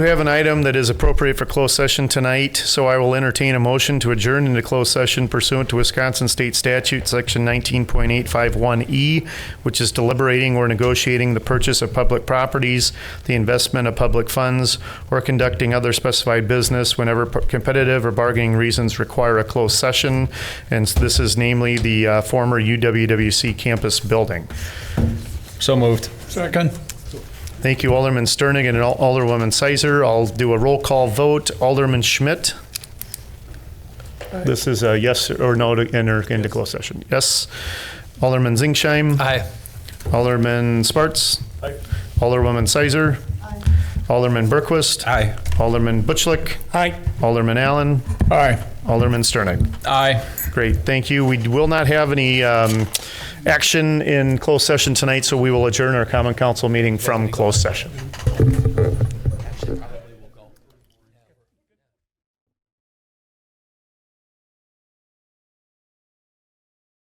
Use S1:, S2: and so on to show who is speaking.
S1: We have an item that is appropriate for closed session tonight, so I will entertain a motion to adjourn into closed session pursuant to Wisconsin State Statute, Section 19.851E, E, which is deliberating or negotiating the purchase of public properties, the investment of public funds, or conducting other specified business whenever p- competitive or bargaining reasons require a closed session. And this is namely the uh, former UWWC campus building.
S2: So moved.
S3: Second.
S1: Thank you, Alderman Sternig and Al- Alderwoman Sizer. I'll do a roll call vote. Alderman Schmidt? This is a yes or no to enter into closed session. Yes. Alderman Zingsheim?
S2: Aye.
S1: Alderman Sparts? Alderwoman Sizer? Alderman Berquist?
S2: Aye.
S1: Alderman Butchlick?
S3: Aye.
S1: Alderman Allen?
S3: Aye.
S1: Alderman Sternig?
S2: Aye.
S1: Great, thank you. We will not have any um, action in closed session tonight, so we will adjourn our common council meeting from closed session.